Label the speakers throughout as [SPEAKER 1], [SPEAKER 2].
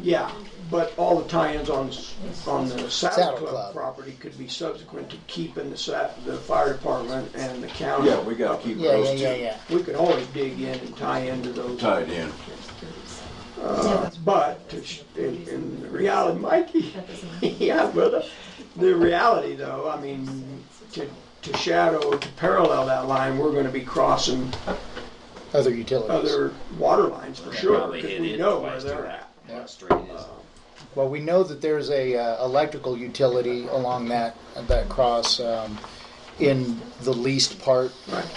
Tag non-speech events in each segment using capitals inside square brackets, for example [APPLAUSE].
[SPEAKER 1] Yeah, but all the tie-ins on, s- on the Saddle
[SPEAKER 2] Saddle
[SPEAKER 1] Club
[SPEAKER 2] Club.
[SPEAKER 1] property could be subsequent to keeping the sa, the fire department and the county.
[SPEAKER 3] Yeah, we gotta keep
[SPEAKER 2] Yeah, yeah,
[SPEAKER 3] those
[SPEAKER 2] yeah,
[SPEAKER 3] two
[SPEAKER 2] yeah.
[SPEAKER 1] We could always dig in and tie into those.
[SPEAKER 3] tied in.
[SPEAKER 1] But to sh- in, in the reality, Mikey, [LAUGHS] yeah, brother. The reality, though, I mean, to, to shadow, to parallel that line, we're going to be crossing
[SPEAKER 2] Other utilities.
[SPEAKER 1] other water lines for sure
[SPEAKER 4] Probably
[SPEAKER 1] because
[SPEAKER 4] hit
[SPEAKER 1] we
[SPEAKER 4] it
[SPEAKER 1] know where
[SPEAKER 4] twice
[SPEAKER 1] they're
[SPEAKER 4] to
[SPEAKER 1] at.
[SPEAKER 4] that street is.
[SPEAKER 2] Well, we know that there's a uh, electrical utility along that, that cross um, in the least part
[SPEAKER 1] Right.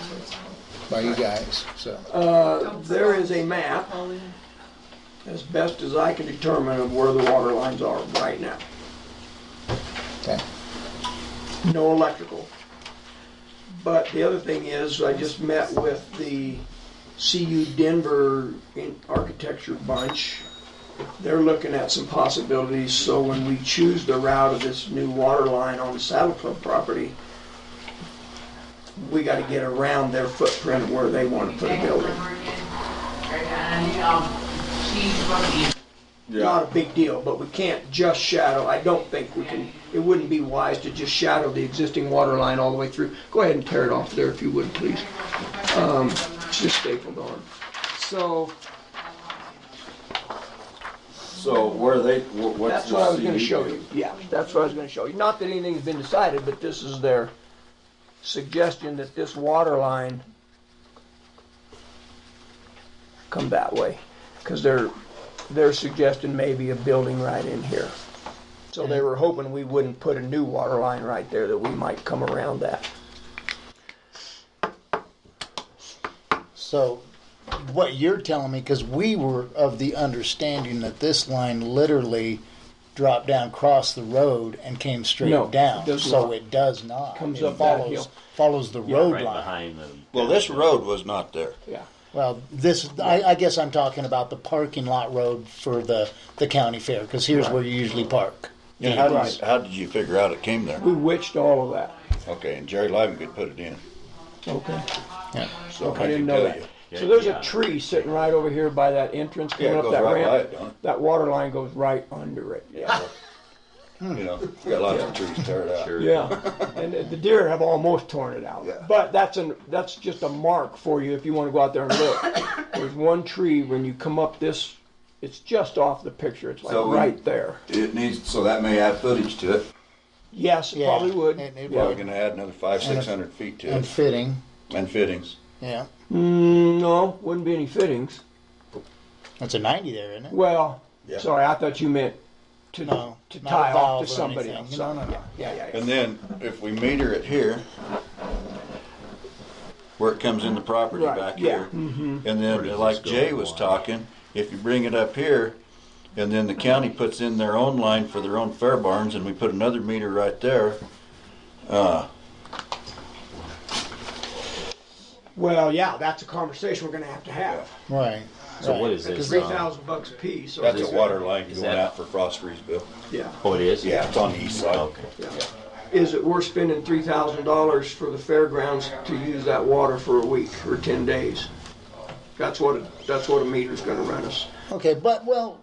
[SPEAKER 2] by you guys, so.
[SPEAKER 1] Uh, there is a map, as best as I can determine, of where the water lines are right now.
[SPEAKER 2] okay.
[SPEAKER 1] no electrical. But the other thing is, I just met with the CU Denver in- architecture bunch. They're looking at some possibilities, so when we choose the route of this new water line on the Saddle Club property, we gotta get around their footprint of where they wanna put a building. Not a
[SPEAKER 3] Yeah,
[SPEAKER 1] big deal, but we can't just shadow, I don't think we can, it wouldn't be wise to just shadow the existing water line all the way through. Go ahead and tear it off there if you would, please. Um, It's just stapled on. So,
[SPEAKER 3] so where they, wh- what's
[SPEAKER 1] that's
[SPEAKER 3] the
[SPEAKER 1] what I was gonna
[SPEAKER 3] CU
[SPEAKER 1] show
[SPEAKER 3] do?
[SPEAKER 1] you, yeah, that's what I was gonna show you. Not that anything's been decided, but this is their suggestion that this water line come that way, because they're, they're suggesting maybe a building right in here. So they were hoping we wouldn't put a new water line right there, that we might come around that.
[SPEAKER 2] So, what you're telling me, because we were of the understanding that this line literally dropped down, crossed the road, and came straight
[SPEAKER 1] No, it
[SPEAKER 2] down.
[SPEAKER 1] does
[SPEAKER 2] so
[SPEAKER 1] not.
[SPEAKER 2] it does not.
[SPEAKER 1] Comes
[SPEAKER 2] it
[SPEAKER 1] up that
[SPEAKER 2] follows
[SPEAKER 1] hill.
[SPEAKER 2] follows the road
[SPEAKER 4] Right
[SPEAKER 2] line.
[SPEAKER 4] behind them.
[SPEAKER 5] Well, this road was not there.
[SPEAKER 1] Yeah.
[SPEAKER 2] Well, this I, I guess I'm talking about the parking lot road for the the county fair, because here's where you usually park.
[SPEAKER 5] And how did, you- how did you figure out it came there?
[SPEAKER 1] We witched all of that.
[SPEAKER 5] Okay, and Jerry Lyman could put it in.
[SPEAKER 1] Okay.
[SPEAKER 2] Yeah.
[SPEAKER 5] So
[SPEAKER 1] I
[SPEAKER 5] I
[SPEAKER 1] didn't
[SPEAKER 5] can
[SPEAKER 1] know
[SPEAKER 5] tell
[SPEAKER 1] that.
[SPEAKER 5] you.
[SPEAKER 1] So there's
[SPEAKER 4] Yeah.
[SPEAKER 1] a tree sitting right over here by that entrance,
[SPEAKER 5] Yeah,
[SPEAKER 1] coming
[SPEAKER 5] it
[SPEAKER 1] up
[SPEAKER 5] goes
[SPEAKER 1] that
[SPEAKER 5] right by
[SPEAKER 1] ramp.
[SPEAKER 5] it, don't it?
[SPEAKER 1] That water line goes right under it. Yeah. Hmm.
[SPEAKER 5] You know, we got lots of trees teared out.
[SPEAKER 4] Sure.
[SPEAKER 1] Yeah. And the deer have almost torn it out.
[SPEAKER 5] Yeah.
[SPEAKER 1] But that's an, that's just a mark for you if you want to go out there and look. There's one tree when you come up this, it's just off the picture. It's like
[SPEAKER 3] So we-
[SPEAKER 1] right there.
[SPEAKER 3] It needs, so that may add footage to it.
[SPEAKER 1] Yes, it
[SPEAKER 2] Yeah,
[SPEAKER 1] probably would.
[SPEAKER 2] it- it
[SPEAKER 5] Probably
[SPEAKER 1] Yeah.
[SPEAKER 5] gonna add another five, six hundred feet to
[SPEAKER 2] And
[SPEAKER 5] it,
[SPEAKER 2] fitting.
[SPEAKER 5] and fittings.
[SPEAKER 2] Yeah.
[SPEAKER 1] Mm, no, wouldn't be any fittings.
[SPEAKER 2] That's a 90 there, isn't it?
[SPEAKER 1] Well,
[SPEAKER 5] Yeah.
[SPEAKER 1] sorry, I thought you meant to
[SPEAKER 2] No,
[SPEAKER 1] to
[SPEAKER 2] not a
[SPEAKER 1] tie off
[SPEAKER 2] valve or
[SPEAKER 1] to somebody
[SPEAKER 2] anything.
[SPEAKER 1] else.
[SPEAKER 2] No, no, no.
[SPEAKER 1] Yeah, yeah, yeah.
[SPEAKER 5] And then if we meter it here, where it comes in the property
[SPEAKER 1] Right,
[SPEAKER 5] back
[SPEAKER 1] yeah, Mm-hmm.
[SPEAKER 5] here. And then like Jay was talking, if you bring it up here, and then the county puts in their own line for their own fair barns, and we put another meter right there,
[SPEAKER 1] Well, yeah, that's a conversation we're gonna have to have.
[SPEAKER 2] Right.
[SPEAKER 4] So
[SPEAKER 2] right.
[SPEAKER 4] what is
[SPEAKER 1] Because
[SPEAKER 5] uh,
[SPEAKER 4] this?
[SPEAKER 1] three
[SPEAKER 4] Um,
[SPEAKER 1] thousand bucks a piece. or-
[SPEAKER 5] that's a water line
[SPEAKER 4] Is
[SPEAKER 5] going
[SPEAKER 4] that-
[SPEAKER 5] out for Frost Freesville.
[SPEAKER 1] Yeah,
[SPEAKER 4] oh, it is.
[SPEAKER 5] Yeah, it's on the east side.
[SPEAKER 4] Okay.
[SPEAKER 1] yeah. Is it worth spending three thousand dollars for the fairgrounds to use that water for a week or ten days? That's what, it- that's what a meter's gonna run us.
[SPEAKER 2] Okay, but well,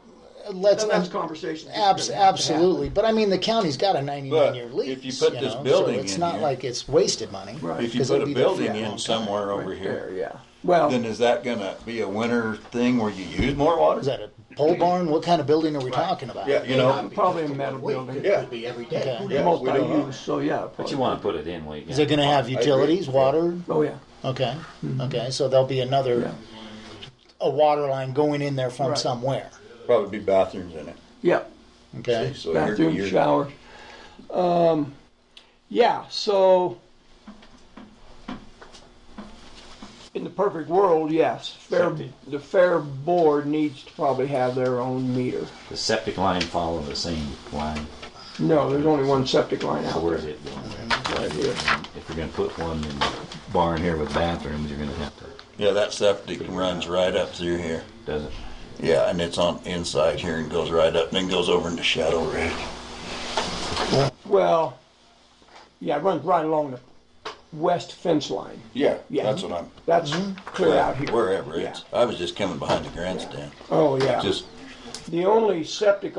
[SPEAKER 2] let's um,
[SPEAKER 1] And that's a conversation. that's
[SPEAKER 2] abs-
[SPEAKER 1] gonna have to
[SPEAKER 2] absolutely. But I mean, the county's got a 99
[SPEAKER 5] But
[SPEAKER 2] year lease.
[SPEAKER 5] if you put this
[SPEAKER 2] know,
[SPEAKER 5] building
[SPEAKER 2] so it's
[SPEAKER 5] in
[SPEAKER 2] not
[SPEAKER 5] here-
[SPEAKER 2] like it's wasted money.
[SPEAKER 1] Right.
[SPEAKER 5] If you
[SPEAKER 2] 'Cause
[SPEAKER 5] put
[SPEAKER 2] it'll
[SPEAKER 5] a
[SPEAKER 2] be there for
[SPEAKER 5] building
[SPEAKER 2] a long
[SPEAKER 5] in
[SPEAKER 2] time.
[SPEAKER 5] somewhere over
[SPEAKER 1] happen There,
[SPEAKER 5] here,
[SPEAKER 1] yeah. Well,
[SPEAKER 5] then is that gonna be a winter thing where you use more water?
[SPEAKER 2] Is that a pole barn? What kind of building are we talking about?
[SPEAKER 5] Yeah, you know,
[SPEAKER 1] probably a metal building,
[SPEAKER 5] yeah,
[SPEAKER 2] Okay.
[SPEAKER 5] yeah, we don't know.
[SPEAKER 1] multi-use, so yeah.
[SPEAKER 4] But
[SPEAKER 1] probably.
[SPEAKER 4] you want to put it in where you
[SPEAKER 2] Is it going to have utilities, water?
[SPEAKER 1] Oh, yeah.
[SPEAKER 2] Okay. Okay. So there'll be another
[SPEAKER 1] Yeah.
[SPEAKER 2] a water line going in there from
[SPEAKER 1] Right.
[SPEAKER 2] somewhere.
[SPEAKER 5] Probably be bathrooms in it.
[SPEAKER 1] Yeah.
[SPEAKER 2] Okay.
[SPEAKER 5] So you're-
[SPEAKER 1] bathroom,
[SPEAKER 5] you're-
[SPEAKER 1] showers. Um, yeah, so in the perfect world, yes, fair,
[SPEAKER 4] Septic.
[SPEAKER 1] the fair board needs to probably have their own meter.
[SPEAKER 4] The septic line follow the same line.
[SPEAKER 1] No, there's only one septic line
[SPEAKER 4] So
[SPEAKER 1] out
[SPEAKER 4] where
[SPEAKER 1] there.
[SPEAKER 4] is it going? Right here. If you're going to put one in the barn here with bathrooms, you're going to have to.
[SPEAKER 5] Yeah, that septic runs right up through here.
[SPEAKER 4] Does it?
[SPEAKER 5] Yeah, and it's on inside here and goes right up, and then goes over into Shadow Ridge.
[SPEAKER 1] Well, yeah, it runs right along the west fence line.
[SPEAKER 5] Yeah,
[SPEAKER 1] Yeah.
[SPEAKER 5] that's what I'm.
[SPEAKER 4] Mm-hmm.
[SPEAKER 1] That's clear out here.
[SPEAKER 5] Wherever
[SPEAKER 1] Yeah.
[SPEAKER 5] it's, I was just coming behind the grandstand.
[SPEAKER 1] Oh, yeah.
[SPEAKER 5] Just
[SPEAKER 1] The only septic